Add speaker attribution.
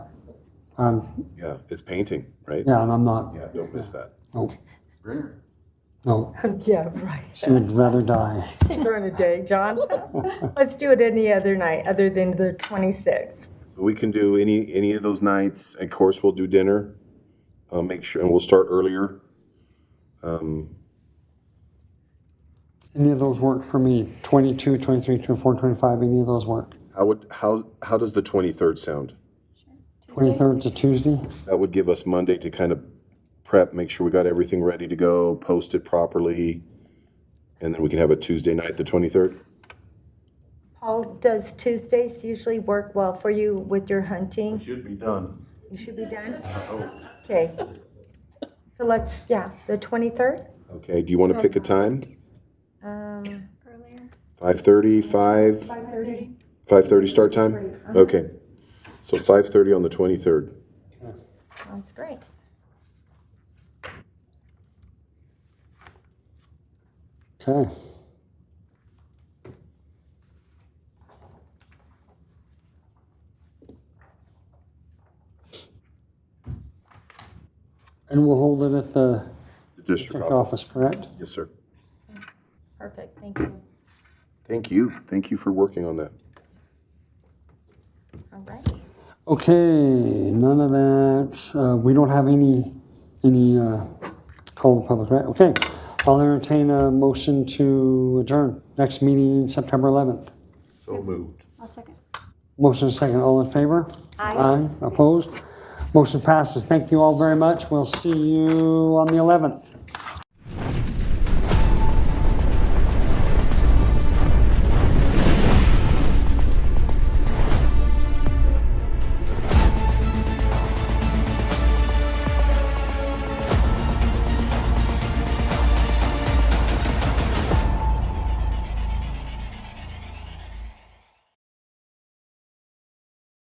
Speaker 1: Um,
Speaker 2: Yeah, it's painting, right?
Speaker 1: yeah, and I'm not.
Speaker 2: Yeah, don't miss that.
Speaker 1: No,
Speaker 3: Bring her.
Speaker 1: no,
Speaker 4: Yeah, right.
Speaker 1: she would rather die.
Speaker 4: Take her in a day, John. Let's do it any other night, other than the 26th.
Speaker 2: So we can do any, any of those nights. Of course, we'll do dinner. Uh, make sure, and we'll start earlier.
Speaker 1: Any of those work for me? 22, 23, 24, 25, any of those work?
Speaker 2: How would, how, how does the 23rd sound?
Speaker 1: 23rd to Tuesday?
Speaker 2: That would give us Monday to kind of prep, make sure we got everything ready to go, post it properly. And then we can have a Tuesday night, the 23rd.
Speaker 5: Paul, does Tuesdays usually work well for you with your hunting?
Speaker 3: Should be done.
Speaker 5: You should be done? Okay. So let's, yeah, the 23rd?
Speaker 2: Okay, do you want to pick a time?
Speaker 5: Um,
Speaker 2: 5:30, 5?
Speaker 5: 5:30.
Speaker 2: 5:30 start time? Okay. So 5:30 on the 23rd.
Speaker 5: That's great.
Speaker 1: Okay. And we'll hold it at the
Speaker 2: The district
Speaker 1: district
Speaker 2: office.
Speaker 1: office, correct?
Speaker 2: Yes, sir.
Speaker 5: Perfect, thank you.
Speaker 2: Thank you. Thank you for working on that.
Speaker 5: All right.
Speaker 1: Okay, none of that. Uh, we don't have any, any, uh, call to public, right? Okay. I'll entertain a motion to adjourn. Next meeting, September 11th.
Speaker 3: So moved.
Speaker 6: I'll second.
Speaker 1: Motion is second. All in favor? Aye. Opposed? Motion passes. Thank you all very much. We'll see you on the 11th.